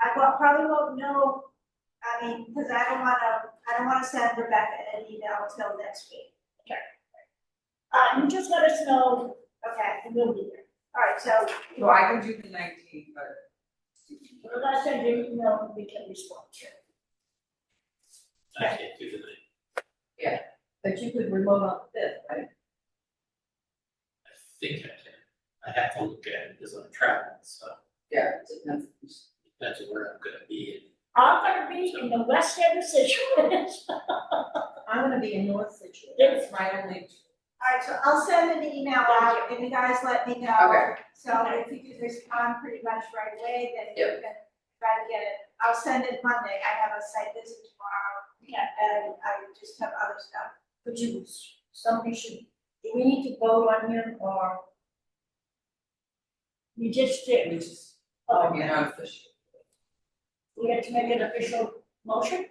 I won't, probably won't know, I mean, because I don't wanna, I don't wanna send Rebecca an email till next week. Uh, you just let us know, Okay, and we'll be there. all right, so, So I can do the nineteenth, but. We're gonna send you an email, and we can respond to. it. I can't do the night, But you could remote on the fifth, right? I think I can, I have to look at it, because I'm traveling, so Yeah, it depends. that's where I'm gonna be, and I'm gonna be in the west end of Situate. I'm gonna be in North Situate, that's my only. all right, so I'll send an email out, and you guys let me know. Okay. So if you could respond pretty much right away, then you can try to get it, I'll send it Monday, I have a site visit tomorrow. Yeah. And I just have other stuff. But you, somebody should, do we need to vote on him or? We just did. We just, Oh, you know, official. We have to make an official motion?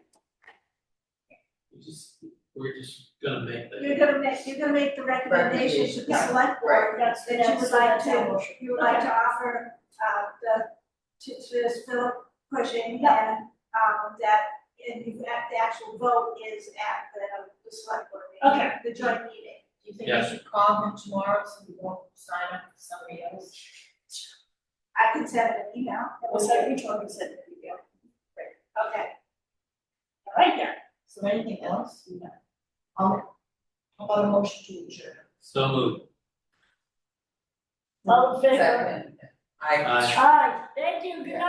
we just, we're just gonna make the. You're gonna make, you're gonna make the recommendation to the Recommendation, select right. board That's, that you would like that's our to, motion. you would like to offer, uh, the, to, to this Philip Cushing and, um, that, and you, that the actual vote is at the, the select board meeting. Okay. The joint meeting. Do you think we should call him tomorrow so we won't sign up for somebody else? I can send an email. That was how we told him, said it, yeah. Okay. All right there. So anything else? No. Um, how about a motion to adjourn? So moved, All in favor? Second. I. Aye. Aye, thank you, good night.